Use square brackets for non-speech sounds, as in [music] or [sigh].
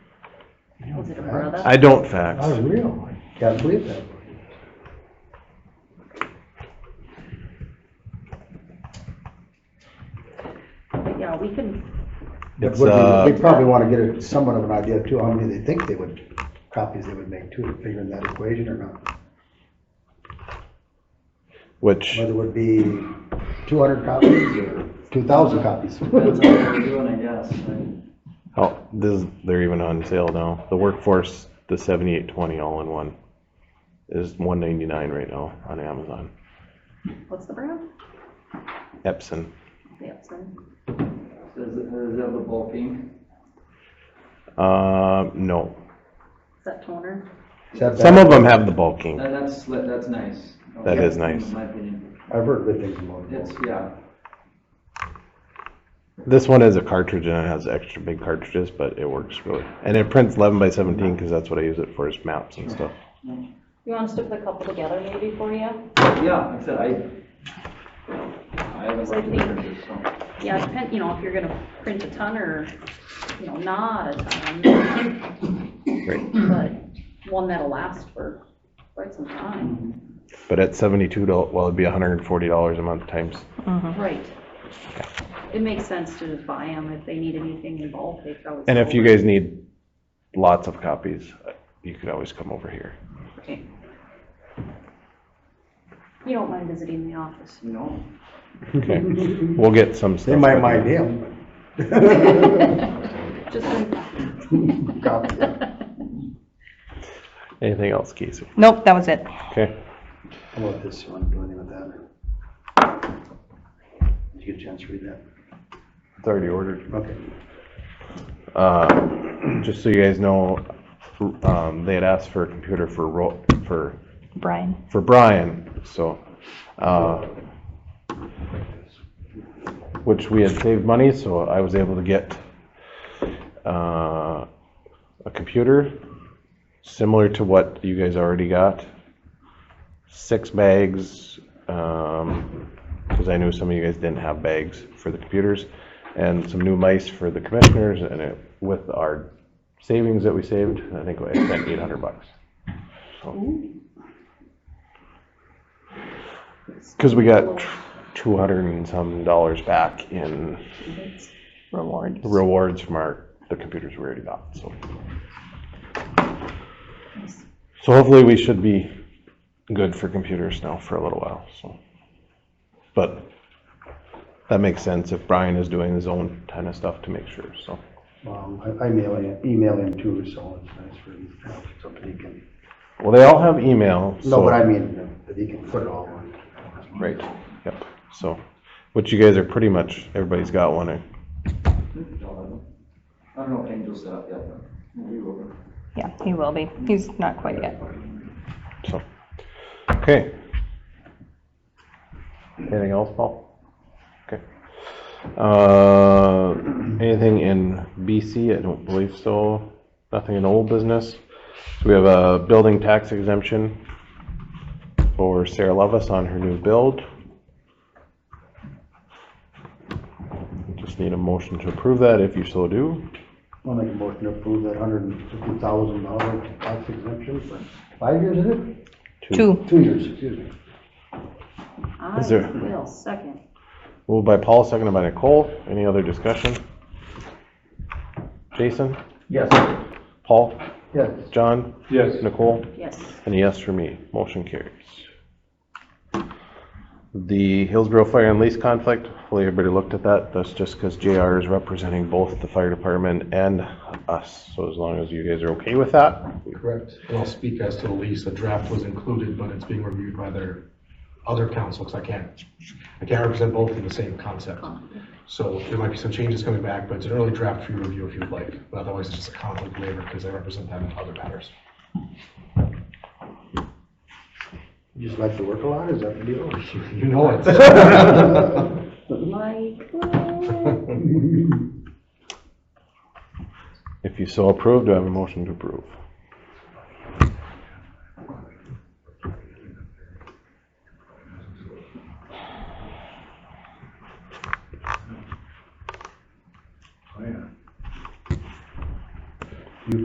it a brother? I don't fax. Oh, really? Can't believe that. But yeah, we can, But It's, would we- uh, we probably want to get a- somewhat of an idea too, how many they think they would, copies they would make too, to figure in that equation or not. Which, Whether it would be two hundred copies or two thousand copies. [laughs] Depends on what we're doing, I guess. I- oh, this, they're even on sale now. The workforce, the seventy-eight twenty all-in-one is one ninety-nine right now on Amazon. what's the brand? Epson. Samson. Is, it- is that the bulk ink? Uh, no. Is that toner? Is that Some bad? of them have the bulk ink. That, that's, sli- that's nice. That Yeah, is nice. In my opinion. I've heard good things about it. It's, yeah, This one is a cartridge and it has extra big cartridges, but it works really. And it prints eleven by seventeen because that's what I use it for is maps and stuff. You want us to put a couple together maybe for you? yeah, like I said, I, I haven't So I worked with think- printers, so. Yeah, depend, you know, if you're gonna print a ton or, you know, not a ton. Great. But one that'll last for quite some time. But at seventy-two dollars, well, it'd be hundred and forty dollars a month times. Mm-hmm. Right. It makes sense to just buy them. If they need anything involved, they could always. And if you call. guys need lots of copies, uh, you could always come over here. Okay. You don't mind visiting the office? You know, Okay, we'll get some stuff. They might with mind you. him. Just like. but [laughs] copy it. Anything else, Casey? Nope, that was it. Okay, How about this, you want to do anything with that? Did you get a chance to read that? it's already ordered. Okay. Uh, just so you guys know, um, they had asked for a computer for Ro- for, Brian. for Brian, so, uh, which we had saved money, so I was able to get, uh, a computer similar to what you guys already got. Six bags, um, because I knew some of you guys didn't have bags for the computers, and some new mice for the commissioners, and it, with our savings that we saved, I think I spent eight hundred bucks. Because we got two hundred and some dollars back in Rewards. rewards from our, the computers we already got, so. So hopefully we should be good for computers now for a little while, so. But that makes sense if Brian is doing his own kind of stuff to make sure, so. Um, I, I mail him, email him too, so it's nice for him, to have something he can, Well, they all have email, so. no, but I mean, that he can put it all on. Right, yep, so, which you guys are pretty much, everybody's got one, eh? I don't know if Angel's set up yet, but we will. Yeah, he will be. He's not quite yet. so. Okay. Anything else, Paul? Okay. Uh, anything in BC? I don't believe so. Nothing in old business. So we have a building tax exemption for Sarah Levis on her new build. Just need a motion to approve that if you so do. I'll make a motion to approve that hundred and fifty thousand dollar tax exemption for five years, is it? Two. Two years, excuse me. I Is there- will second. Moved by Paul, seconded by Nicole. Any other discussion? Jason? Yes. Paul? Yes. John? Yes. Nicole? Yes. And a yes for me. Motion carries. The Hillsborough Fire and Lease Conflict, hopefully everybody looked at that. That's just because JR is representing both the fire department and us. So as long as you guys are okay with that, Correct. And I'll speak as to the lease. A draft was included, but it's being reviewed by their other council, because I can't, I can't represent both in the same concept. So there might be some changes coming back, but it's an early draft for your review if you'd like. But otherwise, it's just a conflict waiver because I represent them in other matters. You just like to work a lot, is that the deal? You know it. Like, if you so approve, do I have a motion to approve?